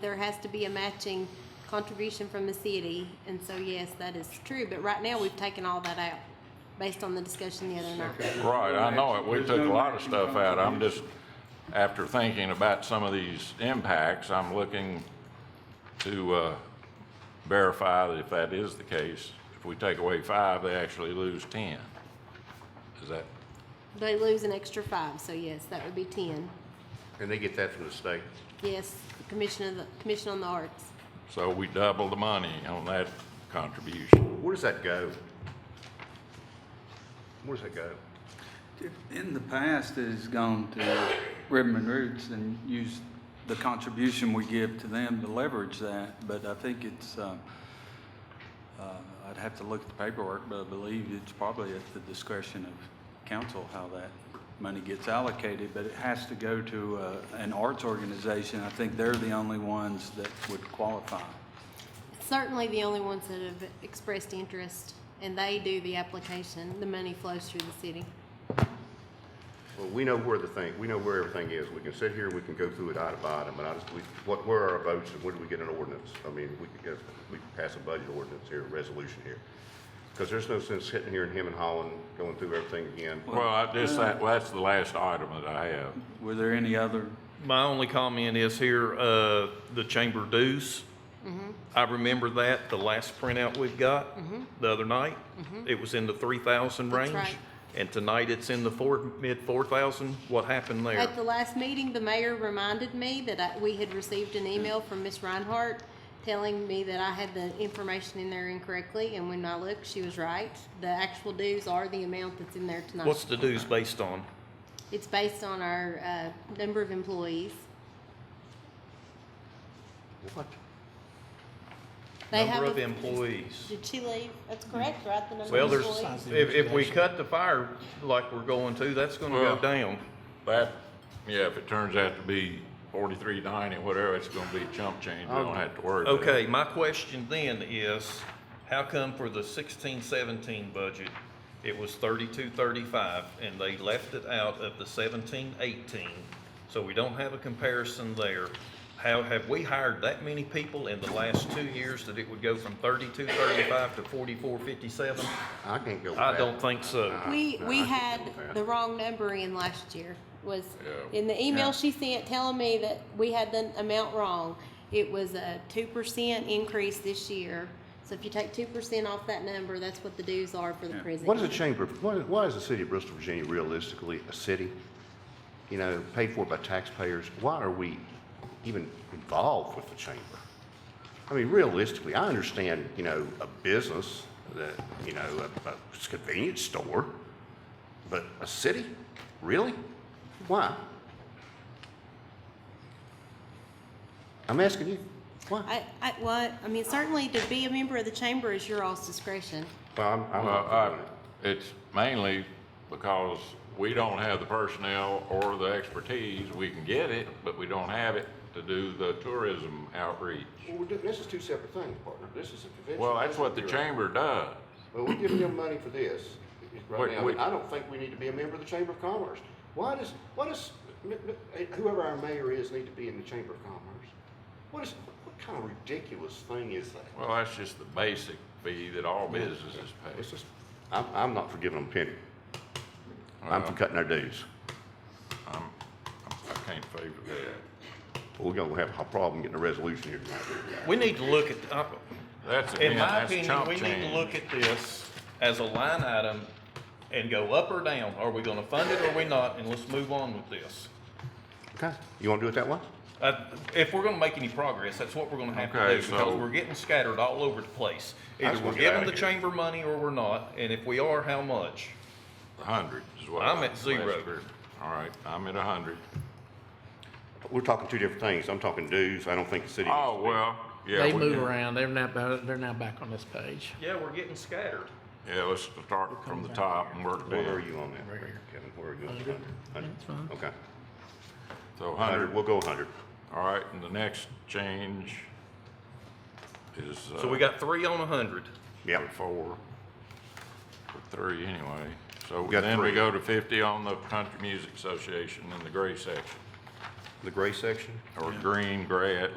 there has to be a matching contribution from the city, and so yes, that is true, but right now, we've taken all that out, based on the discussion the other night. Right, I know it. We There's took a no lot of matching stuff out. I'm just, contribution. after thinking about some of these impacts, I'm looking to uh, verify that if that is the case, if we take away five, they actually lose 10. Is that, They lose an extra five, so yes, that would be ten. And they get that from the state. Yes, the Commission of the, Commission on the Arts. so we double the money on that contribution. Where does that go? Where does that go? In the past, it has gone to Riverman Roots and used the contribution we give to them to leverage that, but I think it's, um, uh, I'd have to look at the paperwork, but I believe it's probably at the discretion of council how that money gets allocated, but it has to go to uh, an arts organization. I think they're the only ones that would qualify. Certainly the only ones that have expressed interest, and they do the application, the money flows through the city. Well, we know where the thing, we know where everything is. We can sit here, we can go through it item by item, but I just, we, what, where are our votes and where do we get an ordinance? I mean, we could get, we could pass a budget ordinance here, a resolution here. Because there's no sense sitting here and hemming and hawing, going through everything again. Well, I just, that, well, that's the last item that I have. Were there any other? My only comment is here, uh, the chamber dues. Mm-hmm. I remember that, the last printout we've got, the other night. It was in the three thousand Mm-hmm. That's range. right. And tonight it's in the four, mid four thousand. What happened there? At the last meeting, the mayor reminded me that I, we had received an email from Miss Reinhardt telling me that I had the information in there incorrectly, and when I looked, she was right. The actual dues are the amount that's in there What's tonight. the dues based on? It's based on our, uh, number of employees. What? They have Number of a- employees. Did she leave? That's correct, right? The number Well, of there's, employees. if, if we cut the fire like we're going to, that's gonna Well- go down. That, yeah, if it turns out to be 4390, whatever, it's going to be chump change. We don't have to worry about it. Okay, my question then is, how come for the sixteen seventeen budget, it was thirty-two thirty-five, and they left it out of the seventeen eighteen? So we don't have a comparison there. How, have we hired that many people in the last two years that it would go from thirty-two thirty-five to forty-four fifty-seven? I can't go with that. I don't think so. We, No, we I had can't do that. the wrong number in last year, was, Yeah. in the email she sent telling me that we had the amount wrong. It was a two percent increase this year, so if you take two percent off that number, that's what the dues are for the prison. What is a chamber, what is, why is the city of Bristol, Virginia realistically a city? You know, paid for by taxpayers, why are we even involved with the chamber? I mean, realistically, I understand, you know, a business, that, you know, a, a convenience store, but a city, really? Why? I'm asking you, why? I, I, what, I mean, certainly to be a member of the chamber is your all's discretion. Well, I'm, I'm Well, not I, doing it. it's mainly because we don't have the personnel or the expertise. We can get it, but we don't have it to do the tourism outreach. Well, we're doing, this is two separate things, partner, this is a convention. Well, that's what the You're right. chamber does. Well, we're giving them money for this right Wait, now, wait. but I don't think we need to be a member of the Chamber of Commerce. Why does, why does, m- m- whoever our mayor is need to be in the Chamber of Commerce? What is, what kind of ridiculous thing is that? Well, that's just the basic fee that all businesses It's pay. just, I'm, I'm not for giving them a penny. I'm for cutting our dues. I can't favor that. We're gonna have a problem getting a resolution here tonight. We need to look at, uh, That's In again, my that's opinion, chump we need to change. look at this as a line item and go up or down. Are we gonna fund it or are we not? And let's move on with this. Okay, you wanna do it that way? Uh, If we're gonna make any progress, that's what we're gonna have to Okay, do because so- we're getting scattered all over the place. I Either just we're wanna get giving outta the here. chamber money or we're not, and if we are, how much? A hundred is what. I'm I- at last zero. year. All right, I'm at a hundred. We're talking two different things. I'm talking dues. I don't think the city. needs Oh, to be- well, yeah. They we move can- around. They're now, ba- they're now back on this page. Yeah, we're getting scattered. Yeah, let's start from the top and work Where are down. you on that, Kevin? Where are you? on the Hundred? Hundred? That's fine. Okay, So hundred, hundred, we'll go hundred. all right, and the next change is. So uh, we got three on a hundred. Yeah. four, or three anyway. So got then we three. go to fifty on the Country Music Association in the gray section, The gray section? or green, gray,